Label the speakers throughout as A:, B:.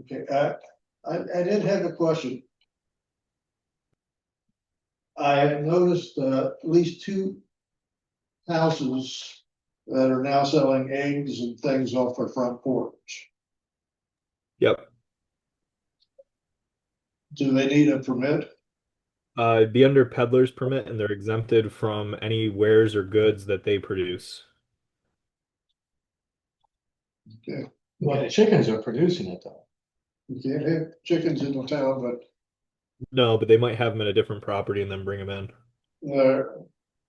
A: Okay, uh, I, I did have a question. I have noticed, uh, at least two houses that are now selling eggs and things off their front porch.
B: Yep.
A: Do they need a permit?
B: Uh, it'd be under peddler's permit and they're exempted from any wares or goods that they produce.
C: Well, the chickens are producing it though.
A: You can't have chickens in the town, but,
B: No, but they might have them at a different property and then bring them in.
A: uh,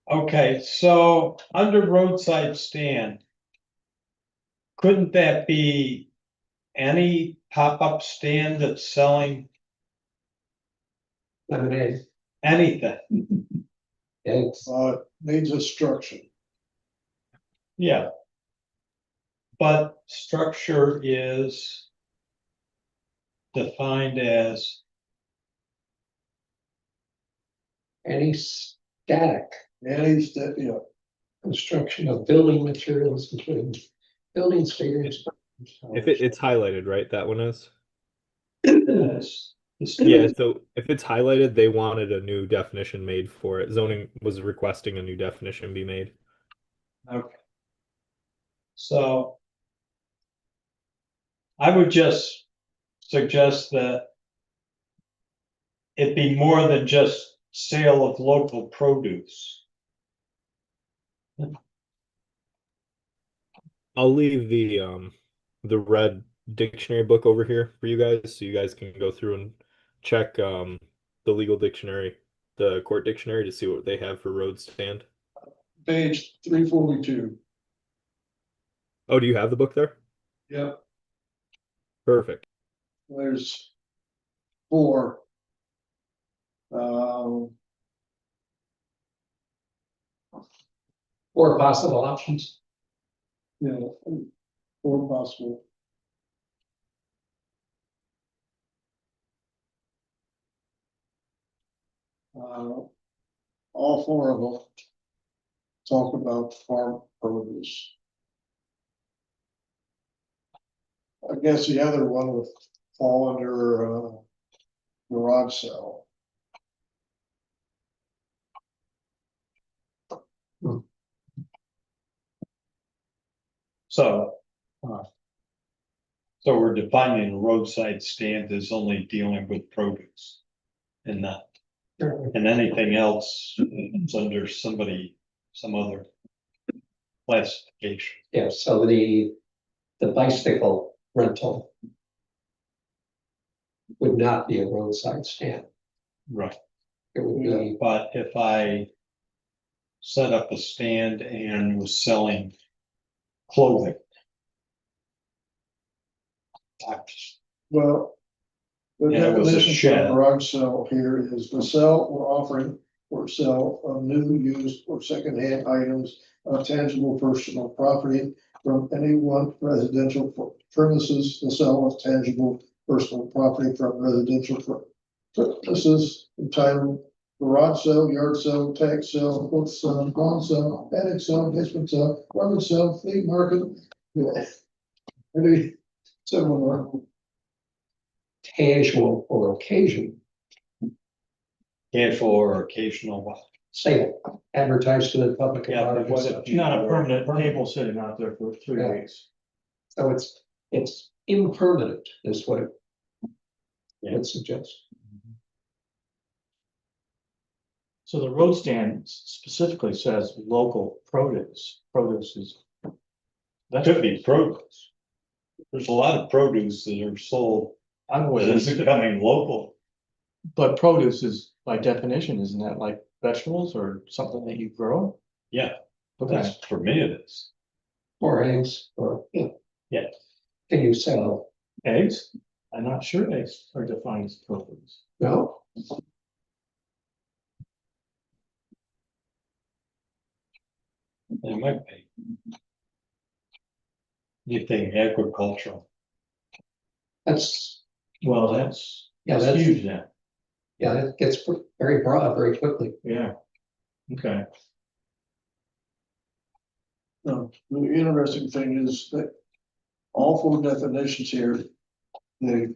D: Okay, so under roadside stand. Couldn't that be any pop-up stand that's selling
E: lemonade,
D: anything?
E: eggs.
A: uh, needs a structure.
D: Yeah. But structure is defined as,
E: Any static
A: And he's, that, you know,
E: construction of building materials, including buildings, figures.
A: Oh,
B: If it, it's highlighted, right? That one is.
D: this. this-
B: Yeah, so if it's highlighted, they wanted a new definition made for it. Zoning was requesting a new definition be made.
D: Okay. So. I would just suggest that. It be more than just sale of local produce.
B: I'll leave the um the red dictionary book over here for you guys so you guys can go through and check um the legal dictionary, the court dictionary to see what they have for road stand.
A: page three forty-two.
B: Oh, do you have the book there?
A: Yep.
B: Perfect.
A: There's four. Um,
E: Or possible options.
A: you know, four possible. Uh, all four of them. Talk about farm produce. I guess the other one would fall under, uh, garage sale.
D: So. uh, So we're defining roadside stand as only dealing with produce. And not, and anything else is under somebody, some other. Classification.
E: Yeah, so the, the bicycle rental would not be a roadside stand.
D: Right.
E: It would be,
D: But if I set up a stand and was selling clothing. I-
A: Well. The
D: Yeah, it was a
A: definition
D: shed.
A: of garage sale here is the sell or offering or sale of new, used, or secondhand items of tangible personal property from any one residential premises, the sale of tangible personal property from residential pr- premises entitled garage sale, yard sale, tag sale, book sale, lawn sale, attic sale, basement sale, garden sale, flea market. yeah. Maybe similar.
E: casual or occasion
D: Casual or occasional what?
E: sale advertised to the public.
D: Yeah,
E: about
D: but
E: it.
D: what if you-
F: Not a permanent table sitting out there for three
E: Yeah.
F: weeks.
E: So it's, it's impermanent is what it
D: Yeah.
E: would suggest.
F: So the road stand specifically says local produce, produce is. That
D: Could be produce. There's a lot of produce that are sold,
F: I'm
D: that
F: with
D: is
F: it,
D: becoming local.
F: but produce is by definition, isn't that like vegetables or something that you grow?
D: Yeah.
F: Okay,
D: That's, for me, it is.
E: Or eggs, or, yeah.
D: Yeah.
E: Can you sell,
F: eggs, I'm not sure eggs are defined as produce.
E: no,
D: It might be. You think agricultural?
E: that's,
F: Well, that's,
E: yeah,
F: that's
E: that's,
F: huge now,
E: yeah, that gets very broad very quickly.
F: yeah. Okay,
A: No, the interesting thing is that all four definitions here, the